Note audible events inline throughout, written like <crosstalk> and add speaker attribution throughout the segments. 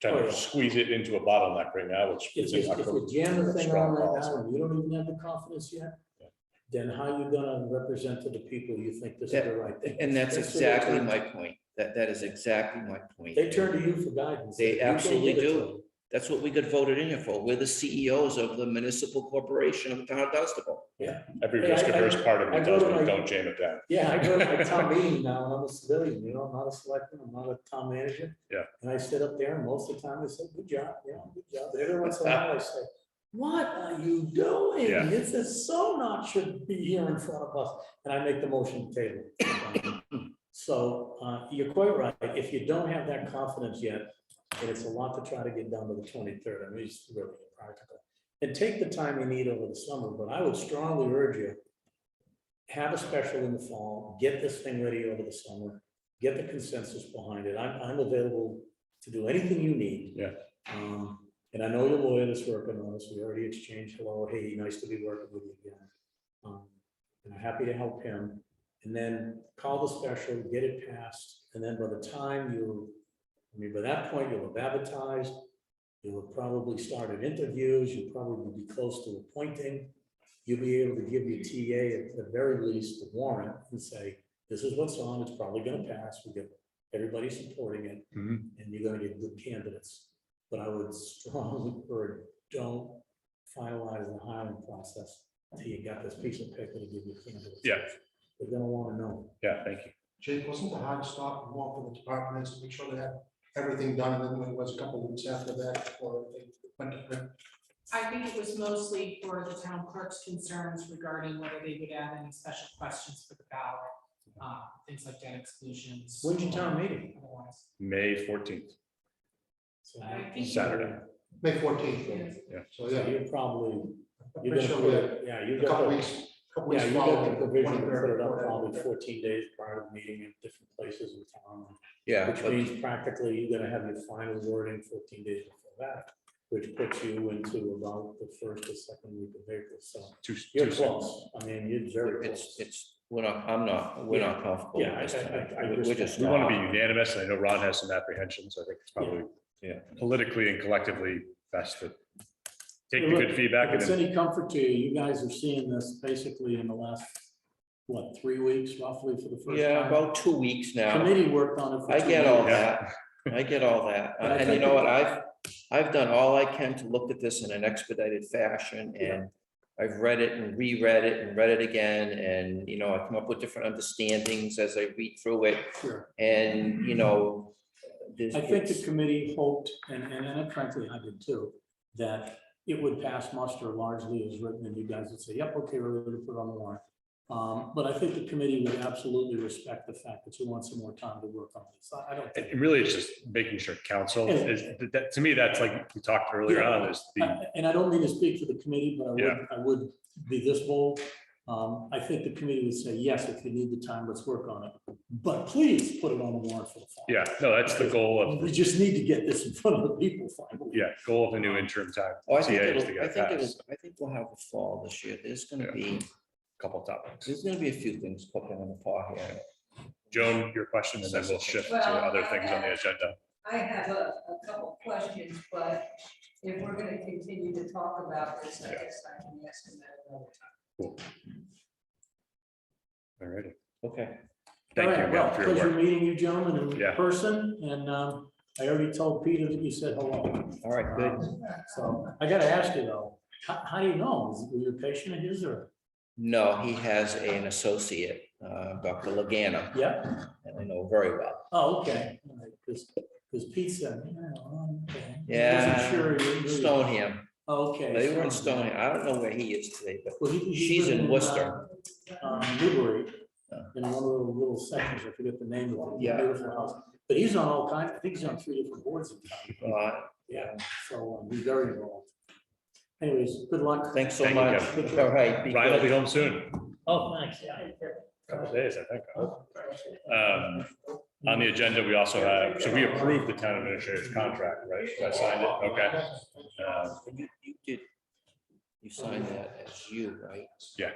Speaker 1: trying
Speaker 2: Oh, yeah.
Speaker 1: to squeeze it into a bottleneck right now, which
Speaker 2: If
Speaker 1: is
Speaker 2: you,
Speaker 1: in our
Speaker 2: if you
Speaker 1: code.
Speaker 2: jam the thing on
Speaker 1: Strong
Speaker 2: right
Speaker 1: policy.
Speaker 2: now and you don't even have the confidence yet, then how you gonna represent to the people you think this is the right thing?
Speaker 3: And that's
Speaker 2: That's the way it
Speaker 3: exactly
Speaker 2: turns
Speaker 3: my
Speaker 2: out.
Speaker 3: point. That, that is exactly my point.
Speaker 2: They turn to you for guidance.
Speaker 3: They
Speaker 2: You can't
Speaker 3: absolutely
Speaker 2: give it to
Speaker 3: do.
Speaker 2: them.
Speaker 3: That's what we got voted in here for. We're the CEOs of the municipal corporation of the town of Dunstable.
Speaker 1: Every
Speaker 2: Hey, I-
Speaker 1: risk averse
Speaker 2: I-
Speaker 1: part of me
Speaker 2: I go
Speaker 1: tells
Speaker 2: to my-
Speaker 1: me, don't jam it down.
Speaker 2: Yeah, I go to my
Speaker 1: <laughs>
Speaker 2: town meeting now, and I'm a civilian, you know, I'm not a selectman, I'm not a town manager.
Speaker 1: Yeah.
Speaker 2: And I sit up there, and most of the time, they say, good job, yeah, good job, every once in a while, I say, what are you doing?
Speaker 1: Yeah.
Speaker 2: This is so not should be here in front of us, and I make the motion to table.
Speaker 1: <coughs>
Speaker 2: So, uh, you're quite right, if you don't have that confidence yet, and it's a lot to try to get done by the twenty-third, I mean, it's really impractical. And take the time you need over the summer, but I would strongly urge you, have a special in the fall, get this thing ready over the summer, get the consensus behind it. I'm, I'm available to do anything you need.
Speaker 1: Yeah.
Speaker 2: Um, and I know your lawyer is working on this. We already exchanged hello, hey, nice to be working with you again. Um, And I'm happy to help him. And then call the special, get it passed, and then by the time you, I mean, by that point, you'll have advertised. You'll have probably started interviews. You'll probably be close to appointing you'll be able to give your TA at the very least the warrant and say, this is what's on, it's probably gonna pass, we get everybody supporting it,
Speaker 1: Mhm.
Speaker 2: and you're gonna get good candidates. But I would strongly urge, don't finalize the hiring process till you got this piece of paper to give your candidates.
Speaker 1: Yeah.
Speaker 2: They're gonna wanna know.
Speaker 1: Yeah, thank you.
Speaker 4: Jake, wasn't the hard stop and walk with the department heads to make sure they had everything done, and then it was a couple of weeks after that before they went to print?
Speaker 5: I think it was mostly for the town clerk's concerns regarding whether they would add any special questions for the ballot, uh, things like debt exclusions.
Speaker 2: When's your town meeting?
Speaker 5: Otherwise,
Speaker 1: May fourteenth,
Speaker 2: So-
Speaker 5: I think-
Speaker 1: Saturday.
Speaker 4: May fourteenth,
Speaker 5: Yes.
Speaker 4: so
Speaker 2: So
Speaker 4: yeah,
Speaker 2: you're probably,
Speaker 4: I'm
Speaker 2: you're
Speaker 4: pretty
Speaker 2: gonna,
Speaker 4: sure we
Speaker 2: put
Speaker 4: had
Speaker 2: it- yeah, you
Speaker 4: a couple
Speaker 2: got, the-
Speaker 4: weeks, couple
Speaker 2: yeah,
Speaker 4: weeks
Speaker 2: you got the
Speaker 4: following. the
Speaker 2: provision, to
Speaker 4: 23rd,
Speaker 2: put it up probably
Speaker 4: 24th.
Speaker 2: fourteen days prior to the meeting in different places in town.
Speaker 3: Yeah.
Speaker 2: Which
Speaker 3: but-
Speaker 2: means practically you're gonna have your final wording fourteen days before that, which puts you into about the first or second week of April, so
Speaker 1: two,
Speaker 2: you're
Speaker 1: two cents.
Speaker 2: close, I mean, you're very
Speaker 3: It's,
Speaker 2: close.
Speaker 3: it's, we're not, I'm not, we're not comfortable
Speaker 2: Yeah, I-
Speaker 3: with this
Speaker 2: I-
Speaker 3: tonight.
Speaker 2: I- I
Speaker 3: We're- We're
Speaker 2: understand.
Speaker 3: just.
Speaker 1: We want to be
Speaker 3: not.
Speaker 1: unanimous, and I know Ron has some apprehensions, I think it's probably,
Speaker 3: Yeah.
Speaker 1: politically and collectively best to take the
Speaker 2: Look,
Speaker 1: good feedback
Speaker 2: If
Speaker 1: and
Speaker 2: it's
Speaker 1: then
Speaker 2: any comfort to you, you guys are seeing this basically in the last, what, three weeks roughly for the first
Speaker 3: Yeah,
Speaker 2: time?
Speaker 3: about two weeks now.
Speaker 2: Committee worked on it for
Speaker 3: I
Speaker 2: two
Speaker 3: get all
Speaker 2: weeks.
Speaker 3: that. I get all that.
Speaker 2: <laughs> But I
Speaker 3: And you
Speaker 2: think
Speaker 3: know
Speaker 2: it-
Speaker 3: what? I've, I've done all I can to look at this in an expedited fashion and I've read it and reread it and read it again. And, you know, I come up with different understandings as I read through it.
Speaker 2: Sure.
Speaker 3: And, you know, there's.
Speaker 2: I think the
Speaker 3: it's-
Speaker 2: committee hoped, and, and and frankly, I did too, that it would pass muster largely as written, and you guys would say, yep, okay, we're ready to put on the warrant. Um, but I think the committee would absolutely respect the fact that you want some more time to work on this. I, I don't think.
Speaker 1: and really it's just making sure council
Speaker 2: Yeah.
Speaker 1: is, that- that, to me, that's like we talked earlier
Speaker 2: Yeah.
Speaker 1: on, is the,
Speaker 2: I- And I don't mean to speak for the committee, but I would,
Speaker 1: Yeah.
Speaker 2: I would be this bold. Um, I think the committee would say, yes, if you need the time, let's work on it, but please put it on the warrant for the fall.
Speaker 1: yeah, no, that's the goal of,
Speaker 2: We just need to get this in front of the people finally.
Speaker 1: yeah, goal of the new interim time.
Speaker 3: Oh, I
Speaker 1: TA
Speaker 3: think
Speaker 1: is to
Speaker 3: it'll,
Speaker 1: get
Speaker 3: I
Speaker 1: it
Speaker 3: think it'll,
Speaker 1: passed.
Speaker 3: I think we'll have a fall this year. There's gonna
Speaker 1: Yeah.
Speaker 3: be,
Speaker 1: Couple topics.
Speaker 3: there's gonna be a few things popping on the fall here.
Speaker 1: Joan, your question, and then we'll shift to
Speaker 6: Well,
Speaker 1: other
Speaker 6: I-
Speaker 1: things on the agenda.
Speaker 6: I have a, a couple questions, but if we're gonna continue to talk about this, I
Speaker 1: Yeah.
Speaker 6: guess I can ask them at another
Speaker 1: All righty.
Speaker 3: Okay.
Speaker 1: Thank
Speaker 2: All
Speaker 1: you
Speaker 2: right,
Speaker 1: again
Speaker 2: well,
Speaker 1: for your
Speaker 2: pleasure
Speaker 1: work.
Speaker 2: meeting you gentlemen in
Speaker 1: Yeah.
Speaker 2: person, and um, I already told Peter that you said hello.
Speaker 3: All right, good.
Speaker 2: Um, So I gotta ask you though, how, how do you know? Is- Were you a patient of his or?
Speaker 3: No, he has an associate, uh, Dr. Lagana,
Speaker 2: Yep,
Speaker 3: that I know very well.
Speaker 2: oh, okay, because, because Pete said, yeah, well, okay.
Speaker 3: Yeah.
Speaker 2: Wasn't sure. you knew.
Speaker 3: Stoneham,
Speaker 2: Okay.
Speaker 3: they were in
Speaker 2: Stoneham.
Speaker 3: Stoneham. I don't know where he is today, but
Speaker 2: Well, he- he
Speaker 3: She's
Speaker 2: lived
Speaker 3: in
Speaker 2: uh,
Speaker 3: Worcester.
Speaker 2: um, Newbury,
Speaker 3: Yeah.
Speaker 2: in one of the little sections, I forget the name of it.
Speaker 3: Yeah.
Speaker 2: Beautiful house, but he's on all kinds, I think he's on three different boards in town.
Speaker 3: uh,
Speaker 2: Yeah, so um, be very involved. Anyways, good luck.
Speaker 3: thanks so
Speaker 1: Thank you,
Speaker 3: much.
Speaker 2: Kevin.
Speaker 3: All right. be
Speaker 1: Ryan will be
Speaker 3: good.
Speaker 1: home soon,
Speaker 2: Oh, thanks, yeah. Oh,
Speaker 1: couple days, I think.
Speaker 6: time.
Speaker 1: Um, On the agenda, we also have, so we approved the town administrator's contract, right? I signed it, okay. Uh,
Speaker 3: You you did, you signed that as you, right?
Speaker 1: Yeah.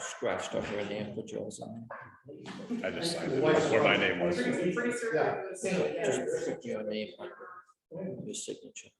Speaker 3: Scratched off your name, put yours on.
Speaker 1: I just signed it, where my name was.
Speaker 5: Pretty pretty certain it was-
Speaker 3: Just put your name on. your signature.